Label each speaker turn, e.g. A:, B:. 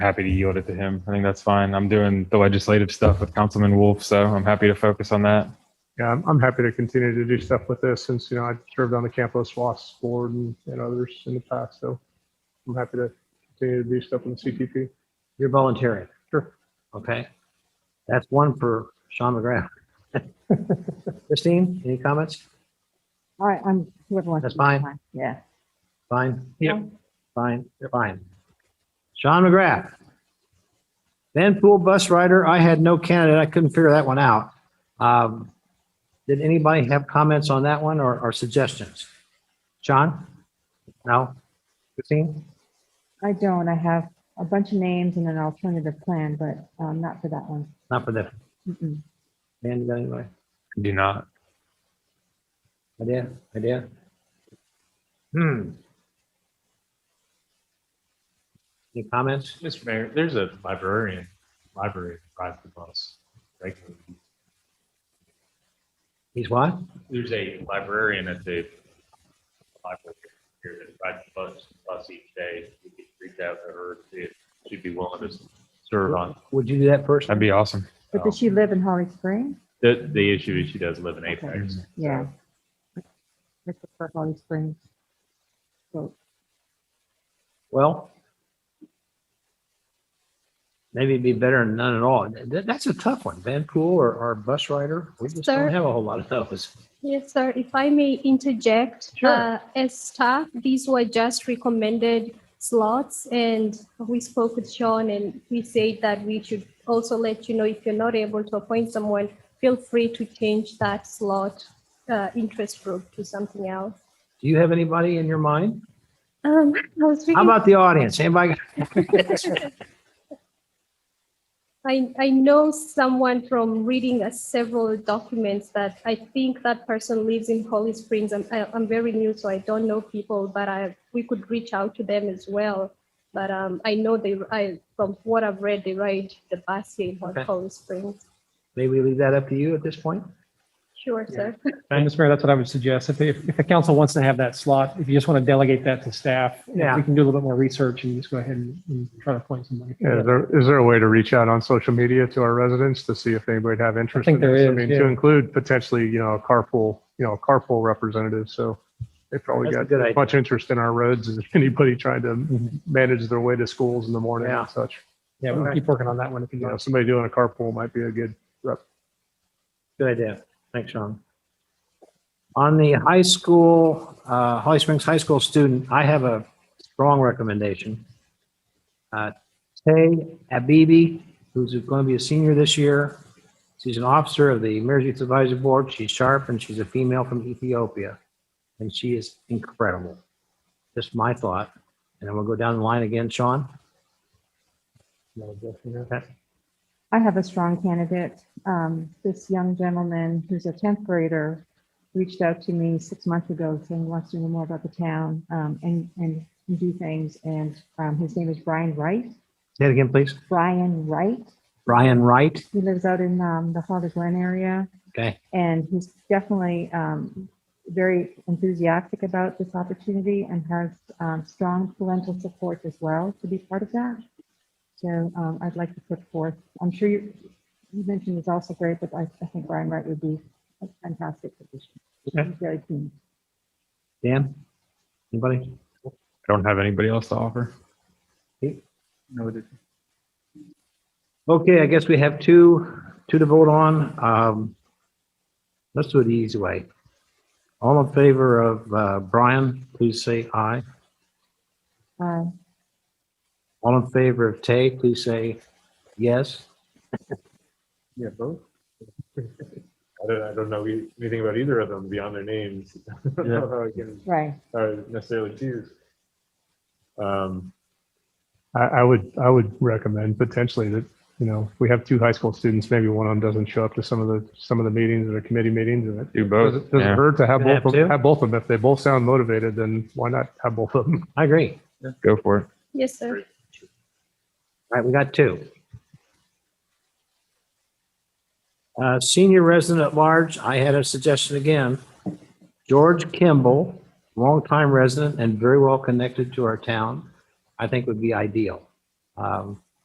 A: happy to yield it to him. I think that's fine. I'm doing the legislative stuff with Councilman Wolf, so I'm happy to focus on that.
B: Yeah, I'm, I'm happy to continue to do stuff with this since, you know, I served on the Campos WAS board and, and others in the past. So I'm happy to continue to do stuff with the CTP.
C: You're volunteering.
B: Sure.
C: Okay. That's one for Sean McGrath. Christine, any comments?
D: All right, I'm, whoever wants.
C: That's
D: to-
C: fine.
D: Yeah.
C: Fine?
D: Yep.
C: Fine, fine. Sean McGrath. Vanpool bus rider, I had no candidate. I couldn't figure that one out. Um, Did anybody have comments on that one or, or suggestions? Sean? No? Christine?
D: I don't. I have a bunch of names and an alternative plan, but um, not for that one.
C: Not for that.
D: Mm-mm.
C: Dan, you got anybody?
A: Do not.
C: Idea, idea. Hmm. Any comments?
E: Mr. Mayor, there's a librarian, library that rides the bus regularly.
C: He's what?
E: There's a librarian at the library here that rides the bus, bus each day. We could reach out to her, see if she'd be willing to serve on.
C: Would you do that first?
A: That'd be awesome.
D: But does she
C: Oh.
D: live in Holly Springs?
E: The, the issue is she does live in Apex.
D: Yeah. I prefer Holly Springs. So,
C: Well, maybe it'd be better than none at all. That, that's a tough one. Van Pool or, or bus rider? We just
F: Sir?
C: don't have a whole lot of those.
F: Yes, sir. If I may interject,
C: Sure.
F: uh, as staff, these were just recommended slots, and we spoke with Sean, and we said that we should also let you know if you're not able to appoint someone, feel free to change that slot uh, interest group to something else.
C: Do you have anybody in your mind?
F: Um, I was
C: How
F: thinking,
C: about the audience? Anybody?
F: I, I know someone from reading uh, several documents that I think that person lives in Holly Springs. I'm, I- I'm very new, so I don't know people, but I, we could reach out to them as well. But um, I know they, I, from what I've read, they ride the bus here in Hol-
C: Okay.
F: Holly Springs.
C: Maybe we leave that up to you at this point?
F: Sure, sir.
G: And Mr. Mayor, that's what I would suggest. If, if if the council wants to have that slot, if you just want to delegate that to staff, if
C: Yeah.
G: we can do a little bit more research and just go ahead and and try to appoint somebody.
B: Yeah, Is there, is there a way to reach out on social media to our residents to see if anybody'd have interest?
G: think
B: in
G: there
B: this? I
G: is,
B: mean,
G: yeah.
B: to include potentially, you know, a carpool, you know, a carpool representative. So they probably
C: That's a
B: got
C: good
B: as
C: idea.
B: much interest in our roads as anybody trying
G: Mm-hmm.
B: to manage their way to schools in the morning
C: Yeah.
B: and such.
G: Yeah, we'll keep working on that one if you
B: You know,
G: want.
B: somebody doing a carpool might be a good
C: Good idea. Thanks, Sean. On the high school, uh, Holly Springs High School student, I have a strong recommendation. Uh, Tay Abibi, who's going to be a senior this year. She's an officer of the Emergency Supervisory Board. She's sharp and she's a female from Ethiopia. And she is incredible. Just my thought. And then we'll go down the line again, Sean. Okay.
D: I have a strong candidate. Um, This young gentleman who's a 10th grader reached out to me six months ago saying he wants to know more about the town um, and, and do things. And um, his name is Brian Wright.
C: Say it again, please.
D: Brian Wright.
C: Brian Wright.
D: He lives out in um, the Father Glen area.
C: Okay.
D: And he's definitely um, very enthusiastic about this opportunity and has um, strong parental support as well to be part of that. So um, I'd like to put forth, I'm sure you you mentioned is also great, but I I think Brian Wright would be a fantastic addition. He's Very keen.
C: Dan? Anybody?
A: I don't have anybody else to offer.
C: Okay, I guess we have two, two to vote on. Um, Let's do it the easy way. All in favor of uh, Brian, please say aye.
D: Uh,
C: All in favor of Tay, please say yes.
E: Yeah, both. I don't, I don't know anything about either of them beyond their names. I
C: know
D: Right.
E: necessarily choose. Um,
B: I, I would, I would recommend potentially that, you know, if we have two high school students, maybe one of them doesn't show up to some of the, some of the meetings or the committee meetings. And it
A: Do
B: doesn't
A: both.
B: doesn't
A: Oh, Yeah,
B: hurt to have
C: Can
B: both,
C: I
B: of
C: have
B: them-
C: two?
B: have both of them. If they both sound motivated, then why not have both of them?
C: I agree.
A: go for it.
F: Yes, sir.
C: All right, we got two. Uh, Senior resident at large, I had a suggestion again. George Kimball, longtime resident and very well connected to our town, I think would be ideal. Um,